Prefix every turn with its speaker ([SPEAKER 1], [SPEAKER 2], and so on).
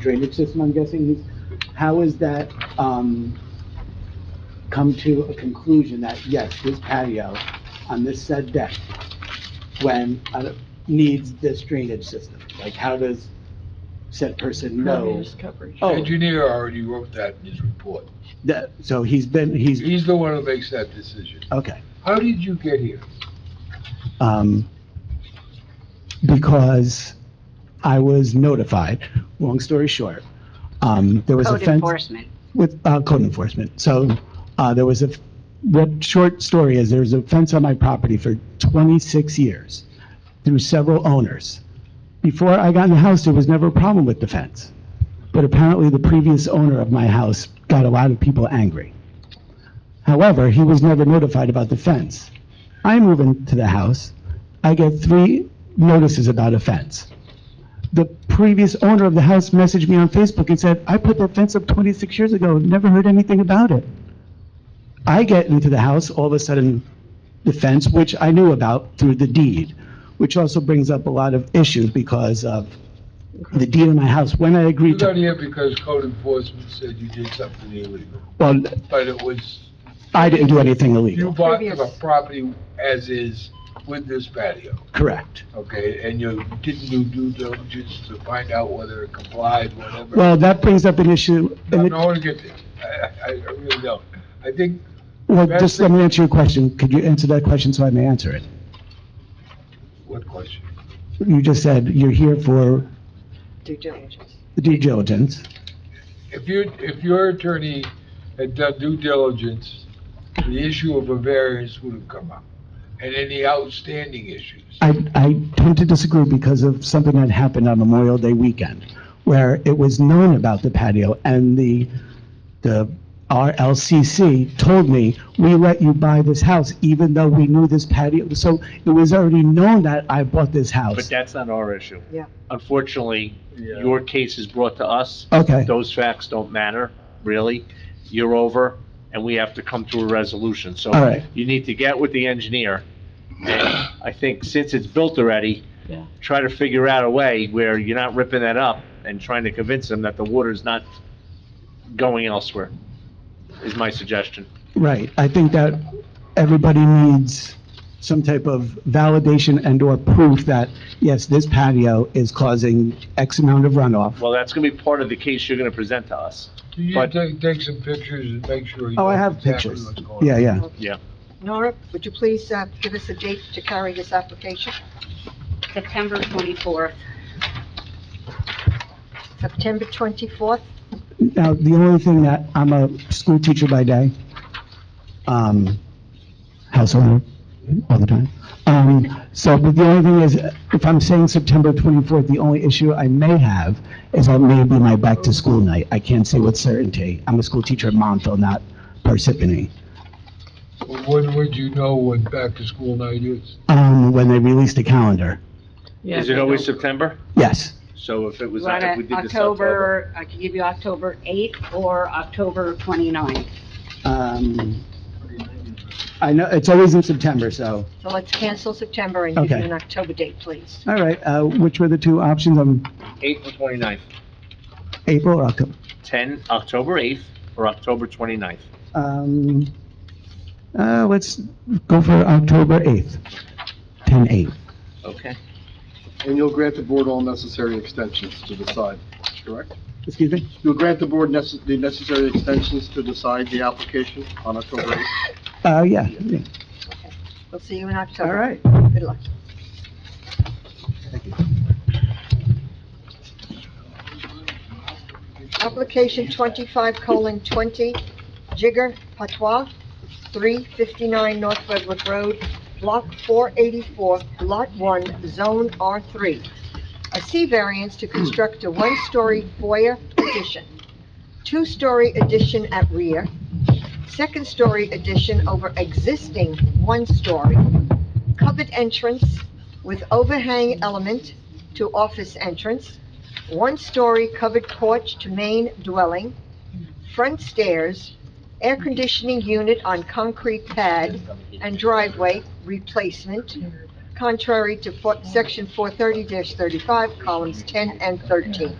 [SPEAKER 1] drainage system, I'm guessing, is, how has that, um, come to a conclusion that, yes, this patio on this said deck, when, uh, needs this drainage system? Like, how does said person know?
[SPEAKER 2] Impervious coverage.
[SPEAKER 1] Oh.
[SPEAKER 3] Engineer already wrote that in his report.
[SPEAKER 1] That, so he's been, he's,
[SPEAKER 3] He's the one who makes that decision.
[SPEAKER 1] okay.
[SPEAKER 3] How did you get here?
[SPEAKER 1] um, because I was notified. Long story short, um, there was a
[SPEAKER 4] Code
[SPEAKER 1] fence
[SPEAKER 4] enforcement.
[SPEAKER 1] with uh, code enforcement. So uh, there was a f- what short story is there was a fence on my property for 26 years through several owners. Before I got in the house, there was never a problem with the fence, but apparently the previous owner of my house got a lot of people angry. However, he was never notified about the fence. I move into the house, I get three notices about a fence. The previous owner of the house messaged me on Facebook and said, "I put that fence up 26 years ago, never heard anything about it." I get into the house, all of a sudden, the fence, which I knew about through the deed, which also brings up a lot of issues because of the deed in my house. When I
[SPEAKER 3] You
[SPEAKER 1] agreed
[SPEAKER 3] got
[SPEAKER 1] to,
[SPEAKER 3] here because code enforcement said you did something illegal,
[SPEAKER 1] well,
[SPEAKER 3] but it was,
[SPEAKER 1] I didn't do anything
[SPEAKER 3] you
[SPEAKER 1] illegal.
[SPEAKER 3] bought the
[SPEAKER 2] Previous.
[SPEAKER 3] property as is with this patio,
[SPEAKER 1] Correct.
[SPEAKER 3] okay? And you didn't do due diligence to find out whether it complied, whatever.
[SPEAKER 1] Well, that brings up an issue.
[SPEAKER 3] No, no one gets it. I, I, I really don't. I think
[SPEAKER 1] Well,
[SPEAKER 3] That's
[SPEAKER 1] just let me answer your question. Could you answer that question so I may answer it?
[SPEAKER 3] What question?
[SPEAKER 1] You just said you're here for
[SPEAKER 4] Due diligence.
[SPEAKER 1] the due diligence.
[SPEAKER 3] If you, if your attorney had done due diligence, the issue of a variance would have come up, and any outstanding issues.
[SPEAKER 1] I, I tend to disagree because of something that happened on Memorial Day weekend, where it was known about the patio, and the, the RLCC told me, we let you buy this house, even though we knew this patio, so it was already known that I bought this
[SPEAKER 5] But
[SPEAKER 1] house.
[SPEAKER 5] that's not our issue.
[SPEAKER 4] Yeah.
[SPEAKER 5] Unfortunately, your case is brought to us.
[SPEAKER 1] Okay,
[SPEAKER 5] Those facts don't matter, really. You're over, and we have to come to a resolution. So
[SPEAKER 1] All right.
[SPEAKER 5] you need to get with the engineer. And I think since it's built already,
[SPEAKER 2] Yeah.
[SPEAKER 5] try to figure out a way where you're not ripping that up and trying to convince them that the water's not going elsewhere, is my suggestion.
[SPEAKER 1] right, I think that everybody needs some type of validation and/or proof that, yes, this patio is causing X amount of runoff.
[SPEAKER 5] Well, that's gonna be part of the case you're gonna present to us.
[SPEAKER 3] Do you
[SPEAKER 5] But-
[SPEAKER 3] take, take some pictures and make sure? you
[SPEAKER 1] Oh, I
[SPEAKER 3] know
[SPEAKER 1] have
[SPEAKER 3] exactly
[SPEAKER 1] pictures.
[SPEAKER 3] what's going
[SPEAKER 1] Yeah,
[SPEAKER 3] on?
[SPEAKER 1] yeah.
[SPEAKER 4] Nora, would you please uh, give us a date to carry this application?
[SPEAKER 6] September 24th.
[SPEAKER 4] September 24th?
[SPEAKER 1] Now, the only thing that, I'm a school teacher by day, um, house owner all the time. Um, so, but the only thing is, if I'm saying September 24th, the only issue I may have is that may be my back-to-school night. I can't say with certainty. I'm a school teacher at Montville, not Parsippany.
[SPEAKER 3] Well, When would you know when back-to-school night is?
[SPEAKER 1] Um, when they released the calendar,
[SPEAKER 2] Yeah,
[SPEAKER 5] Is it
[SPEAKER 2] they
[SPEAKER 5] always
[SPEAKER 2] don't-
[SPEAKER 5] September?
[SPEAKER 1] yes.
[SPEAKER 5] So if it was,
[SPEAKER 6] Right,
[SPEAKER 5] if we did this October.
[SPEAKER 6] October, I could give you October 8th or October 29th.
[SPEAKER 1] Um, I know, it's always in September, so,
[SPEAKER 4] So let's cancel September and give you
[SPEAKER 1] Okay.
[SPEAKER 4] an October date, please.
[SPEAKER 1] all right, uh, which were the two options, um,
[SPEAKER 5] Eighth or twenty-ninth?
[SPEAKER 1] April or October?
[SPEAKER 5] Ten, October eighth or October twenty-ninth?
[SPEAKER 1] Um, uh, let's go for October 8th, 10/8.
[SPEAKER 5] Okay.
[SPEAKER 7] And you'll grant the board all necessary extensions to decide, correct?
[SPEAKER 1] Excuse me?
[SPEAKER 7] You'll grant the board necess- the necessary extensions to decide the application on October 8th?
[SPEAKER 1] Uh, yeah, yeah.
[SPEAKER 4] We'll see you in October.
[SPEAKER 1] all right.
[SPEAKER 4] Good luck. Application twenty-five colon twenty, Jigger Patois, three fifty-nine North Redwood Road, block four eighty-four, lot one, zone R three. A C variance to construct a one-story foyer addition, two-story addition at rear, second-story addition over existing one-story, covered entrance with overhang element to office entrance, one-story covered porch to main dwelling, front stairs, air conditioning unit on concrete pad, and driveway replacement, contrary to fo- section four thirty thirty-five, columns ten and thirteen.